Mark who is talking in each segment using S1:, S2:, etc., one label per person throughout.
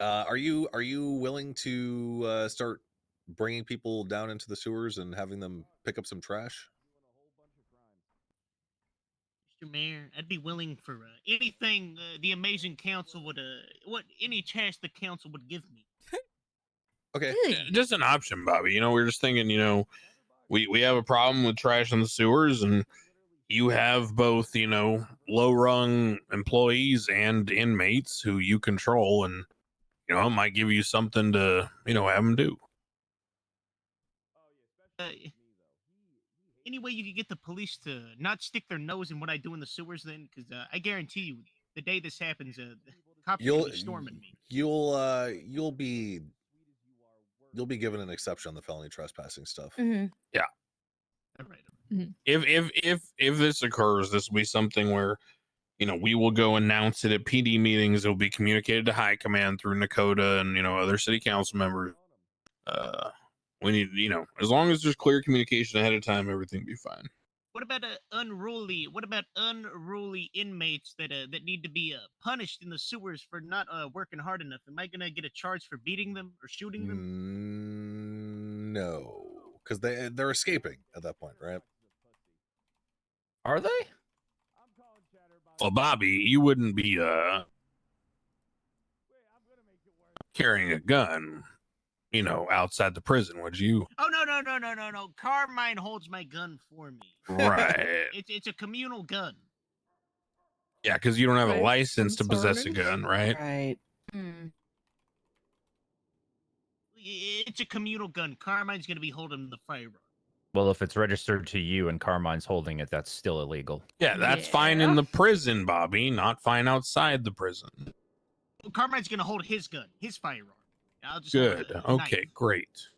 S1: Uh, are you are you willing to uh, start bringing people down into the sewers and having them pick up some trash?
S2: Mr. Mayor, I'd be willing for uh, anything uh, the amazing council would, uh, what any chance the council would give me.
S1: Okay.
S3: Yeah, Eh, just an option, Bobby. You know, we are just thinking, you know, we we have a problem with trash in the sewers, and you have both, you know, low rung employees and inmates who you control, and you know, it might give you something to, you know, have them do.
S2: Uh, any way you could get the police to not stick their nose in what I do in the sewers, then, because uh, I guarantee you, the day this happens, uh, the cops will
S1: You'll
S2: be storming me.
S1: you'll uh you'll be you'll be given an exception on the felony trespassing stuff.
S4: hmm
S2: All right.
S3: If if if if this occurs, this will be something where, you know, we will go announce it at PD meetings. It will be communicated to high command through Nakota and you know other city council members. Uh, we need, you know, as long as there's clear communication ahead of time, everything will be fine.
S2: What about uh, unruly? What about unruly inmates that uh, that need to be uh, punished in the sewers for not uh, working hard enough? Am I gonna get a charge for beating them or shooting them?
S1: Mm, no, because they they're escaping at that point, right?
S5: Are they?
S3: Well, Bobby, you wouldn't be uh carrying a gun, you know, outside the prison, would you?
S2: Oh no no no no no no! Carmine holds my gun for me.
S3: Right.
S2: It's it's a communal gun.
S3: yeah, because you don't have a
S6: Right,
S3: license to
S6: I'm
S3: possess a
S6: sorry.
S3: gun, right?
S6: Right.
S2: I- It's a communal gun. Carmine's gonna be holding the firearm.
S5: Well, if it's registered to you and Carmine's holding it, that's still illegal.
S3: Yeah, that's fine
S6: Yeah.
S3: in the prison, Bobby, not fine outside the prison.
S2: Carmine's gonna hold his gun, his firearm. I'll just hold
S3: Good.
S2: the
S3: Okay,
S2: knife.
S3: great.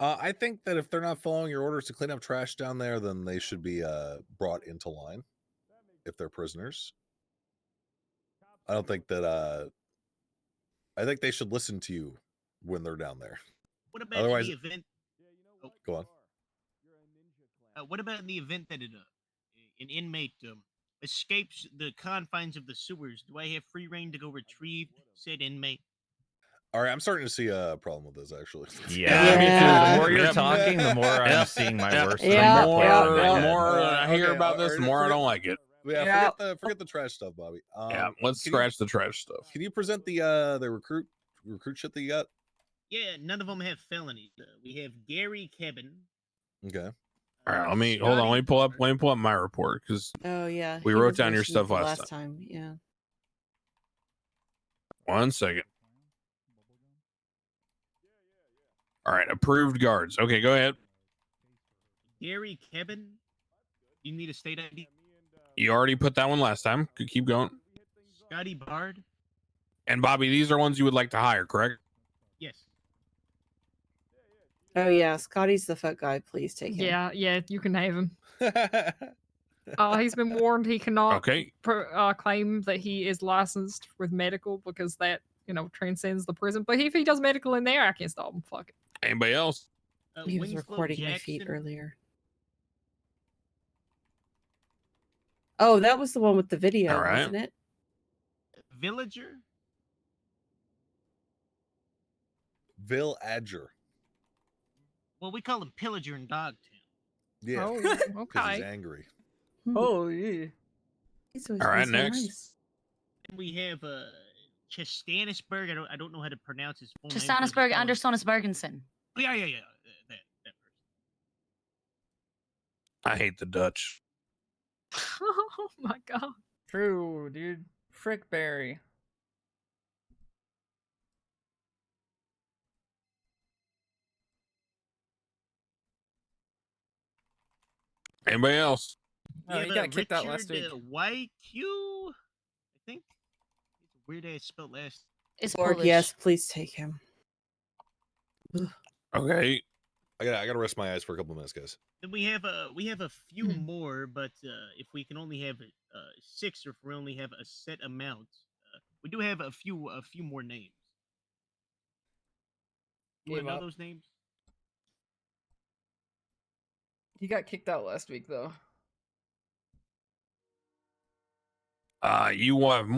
S1: Uh, I think that if they're not following your orders to clean up trash down there, then they should be uh, brought into line if they're prisoners. I don't think that. Uh, I think they should listen to you when they're down there.
S2: What about
S1: Otherwise-
S2: in the event?
S1: Go on.
S2: Uh, what about in the event that it, uh, an inmate um, escapes the confines of the sewers? Do I have free reign to go retrieve said inmate?
S1: All right, I'm starting to see a problem with this actually.
S5: Yeah,
S6: me too.
S5: The more you're
S3: Yep.
S5: talking, the more I'm
S3: Yep.
S5: seeing my
S3: Yeah,
S5: worst.
S3: the
S6: Yeah.
S5: nightmare
S3: more,
S5: play out in
S3: the
S5: my head.
S3: more I hear
S1: Okay,
S3: about
S1: all
S3: this, the
S1: right,
S3: more I
S1: forget-
S3: don't like it.
S1: Yeah,
S6: Yeah.
S1: forget the forget the trash stuff, Bobby. Um,
S3: Yeah, let's
S1: can you-
S3: scratch the trash stuff.
S1: Can you present the uh the recruit recruit shit that you got?
S2: Yeah, none of them have felonies. Uh, we have Gary Kevin.
S1: Okay.
S3: All right, let me hold on. Let me pull up. Let me pull up my report because
S6: Oh yeah.
S3: We
S6: he
S3: wrote
S6: was
S3: down your
S6: mentioned
S3: stuff last
S6: last time. Yeah.
S3: One second. All right, approved guards. Okay, go ahead.
S2: Gary Kevin. You need a state ID.
S3: You already put that one last time. Could keep going.
S2: Scotty Bard.
S3: And Bobby, these are ones you would like to hire, correct?
S2: Yes.
S6: Oh yeah. Scotty's the fuck guy. Please take him.
S7: Yeah, yeah, you can have him. Uh, he's been warned he cannot
S3: Okay.
S7: pro- uh, claim that he is licensed with medical because that, you know, transcends the prison. But if he does medical in there, I can stop him. Fuck it.
S3: Anybody else?
S2: Uh,
S6: He was
S2: Winslow
S6: recording my feet
S2: Jackson.
S6: earlier. Oh, that was the one with the video,
S3: All right.
S6: wasn't it?
S2: Villager.
S1: Bill Adger.
S2: Well, we call him Pillager in Dogtown.
S1: Yeah.
S7: Oh,
S1: 'cause he's
S7: okay.
S1: angry.
S6: Hmm,
S5: Oh, yeah.
S6: he's always
S3: All right,
S6: been so
S3: next.
S6: nice.
S2: Then we have uh, Chastanisberg. I don't, I don't know how to pronounce his full name. so I just
S4: Chastanisberg
S2: call him-
S4: under Sonisbergensen.
S2: Yeah, yeah, yeah. uh, That, that person.
S3: I hate the Dutch.
S7: oh my god.
S8: True, dude. Frickberry.
S3: Anybody else?
S8: No,
S2: We
S8: Oh, he
S2: have,
S8: got
S2: uh,
S8: kicked out last
S2: Richard,
S8: week.
S2: uh, YQ, I think. It's a weird ass spelled last.
S4: It's
S6: Lord,
S4: Polish.
S6: yes, please take him.
S3: Okay.
S1: I gotta I gotta rest my eyes for a couple minutes, guys.
S2: Then we have a we have a few
S7: Hmm.
S2: more, but uh, if we can only have uh, six, or if we only have a set amount, uh, we do have a few a few more names. Do you
S8: Give
S2: know
S8: up.
S2: those names?
S8: He got kicked out last week, though.
S3: Uh, you want